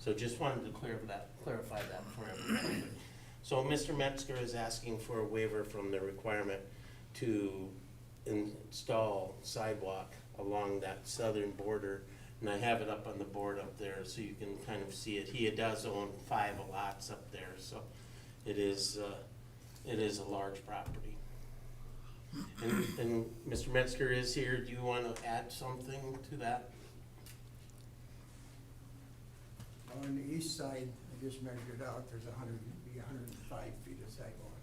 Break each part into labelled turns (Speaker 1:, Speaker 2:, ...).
Speaker 1: So just wanted to clear that, clarify that for everybody. So Mr. Metzger is asking for a waiver from the requirement to install sidewalk along that southern border. And I have it up on the board up there so you can kind of see it. He does own five lots up there, so it is, uh, it is a large property. And, and Mr. Metzger is here. Do you want to add something to that?
Speaker 2: On the east side, I just measured out, there's a hundred, be a hundred and five feet of sidewalk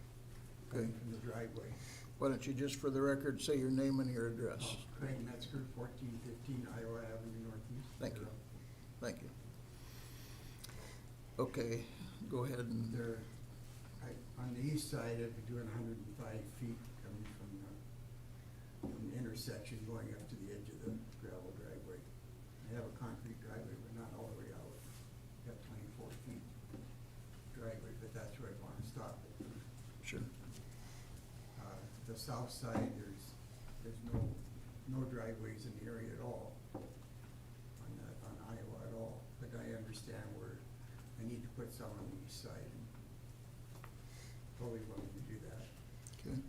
Speaker 3: Okay,
Speaker 2: coming from the driveway.
Speaker 3: why don't you just for the record say your name and your address?
Speaker 2: Craig Metzger, fourteen fifteen Iowa Avenue Northeast.
Speaker 3: Thank you. Thank you. Okay, go ahead and,
Speaker 2: There, I, on the east side, I'd be doing hundred and five feet coming from the, from the intersection going up to the edge of the gravel driveway. I have a concrete driveway, but not all the way out. Got twenty-four feet driveway, but that's where I wanna stop it.
Speaker 3: sure,
Speaker 2: Uh, The south side, there's, there's no, no driveways in the area at all, on, the- on Iowa at all. But I understand where I need to put some on the east side and totally willing to do that.
Speaker 3: okay.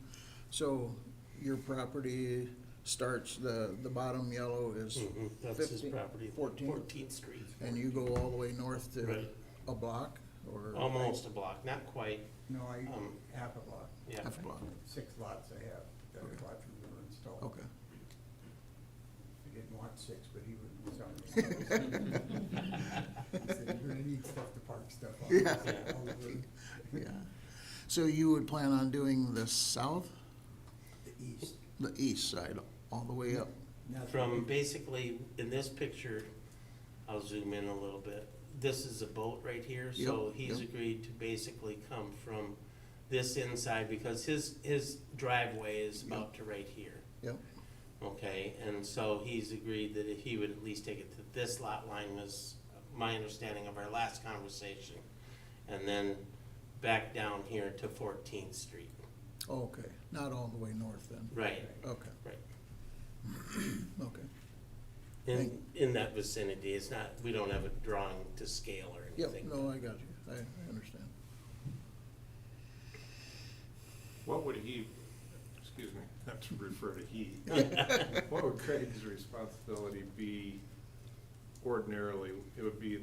Speaker 3: So your property starts, the, the bottom yellow is,
Speaker 1: Mhm, That's his
Speaker 3: 15
Speaker 1: property.
Speaker 3: 14.
Speaker 1: Fourteenth Street.
Speaker 3: and you go all the way north to
Speaker 1: Right.
Speaker 3: a block or?
Speaker 1: Almost a block, not quite,
Speaker 2: No, I,
Speaker 1: Um,
Speaker 2: half a lot,
Speaker 1: yeah.
Speaker 3: Half a block,
Speaker 2: six lots I have, that I bought from the installer.
Speaker 3: okay.
Speaker 2: I didn't want six, but he was was on the. He said, you're gonna need stuff to park stuff on. I said,
Speaker 1: Yeah.
Speaker 2: "All over
Speaker 3: Yeah. So you would plan on doing the south,
Speaker 2: The east.
Speaker 3: the east side, all the way up?
Speaker 2: Nothing.
Speaker 1: From basically, in this picture, I'll zoom in a little bit. This is a boat right here, so
Speaker 3: Yep,
Speaker 1: he's
Speaker 3: yep.
Speaker 1: agreed to basically come from this inside because his, his driveway is about to right here.
Speaker 3: Yep,
Speaker 1: Okay, and so he's agreed that if he would at least take it to this lot line was my understanding of our last conversation. And then back down here to Fourteenth Street.
Speaker 3: okay, not all the way north then,
Speaker 1: Right,
Speaker 3: okay,
Speaker 1: right.
Speaker 3: okay.
Speaker 1: In, in that vicinity, it's not, we don't have a drawing to scale or
Speaker 3: Yep,
Speaker 1: anything.
Speaker 3: no, I got you, I, I understand.
Speaker 4: What would he, excuse me, not to refer to he, what would Craig's responsibility be ordinarily? It would be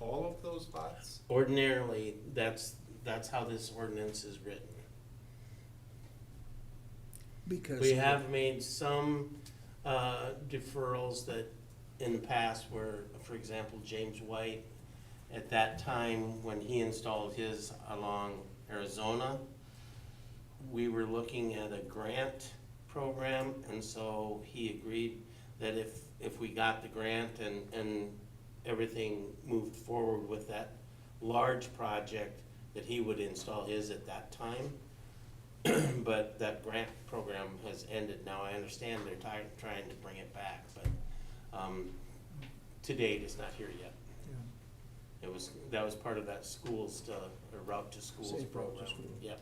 Speaker 4: all of those lots?
Speaker 1: Ordinarily, that's, that's how this ordinance is written.
Speaker 3: Because.
Speaker 1: We have made some, uh, deferrals that in the past where, for example, James White, at that time, when he installed his along Arizona, we were looking at a grant program, and so he agreed that if, if we got the grant and, and everything moved forward with that large project, that he would install his at that time. But that grant program has ended now. I understand they're trying, trying to bring it back, but, um, to date, it's not here yet.
Speaker 3: Yeah.
Speaker 1: It was, that was part of that schools to, or route to schools
Speaker 3: Safe Route to
Speaker 1: program,
Speaker 3: School.
Speaker 1: yep.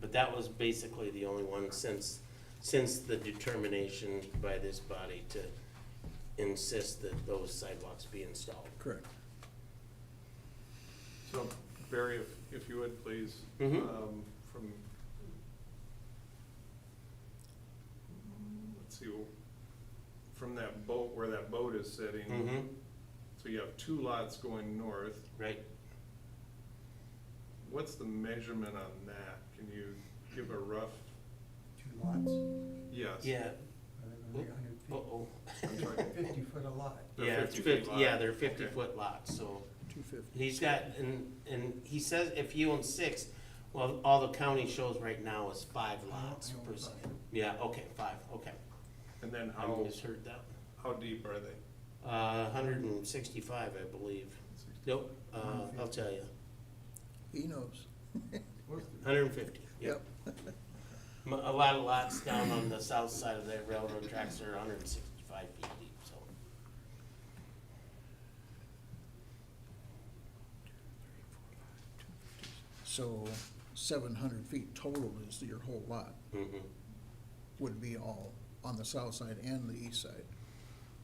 Speaker 1: But that was basically the only one since, since the determination by this body to insist that those sidewalks be installed.
Speaker 3: Correct.
Speaker 4: So Barry, if, if you would, please,
Speaker 1: Mhm.
Speaker 4: um, from, let's see, from that boat, where that boat is sitting,
Speaker 1: Mm-hmm,
Speaker 4: so you have two lots going north.
Speaker 1: right.
Speaker 4: What's the measurement on that? Can you give a rough,
Speaker 2: Two lots.
Speaker 4: yes?
Speaker 1: Yeah,
Speaker 2: Only a hundred feet.
Speaker 1: uh-oh.
Speaker 4: I'm sorry.
Speaker 2: Fifty foot a lot.
Speaker 4: They're
Speaker 1: Yeah, it's
Speaker 4: 50 feet
Speaker 1: fifty,
Speaker 4: wide.
Speaker 1: yeah, they're fifty
Speaker 4: Okay.
Speaker 1: foot lots, so.
Speaker 3: Two fifty.
Speaker 1: He's got, and, and he says if he owns six, well, all the county shows right now is five lots
Speaker 2: I own
Speaker 1: per se.
Speaker 2: five.
Speaker 1: Yeah, okay, five, okay.
Speaker 4: And then
Speaker 1: I
Speaker 4: how,
Speaker 1: misheard that.
Speaker 4: how deep are they?
Speaker 1: Uh, hundred and sixty-five, I believe. Nope, uh, I'll tell you,
Speaker 3: He knows.
Speaker 2: What's the-
Speaker 1: hundred and fifty, yep. M- A lot of lots down on the south side of that railroad tracks are hundred and sixty-five feet deep, so.
Speaker 3: So seven hundred feet total is your whole lot,
Speaker 1: mhm.
Speaker 3: would be all on the south side and the east side.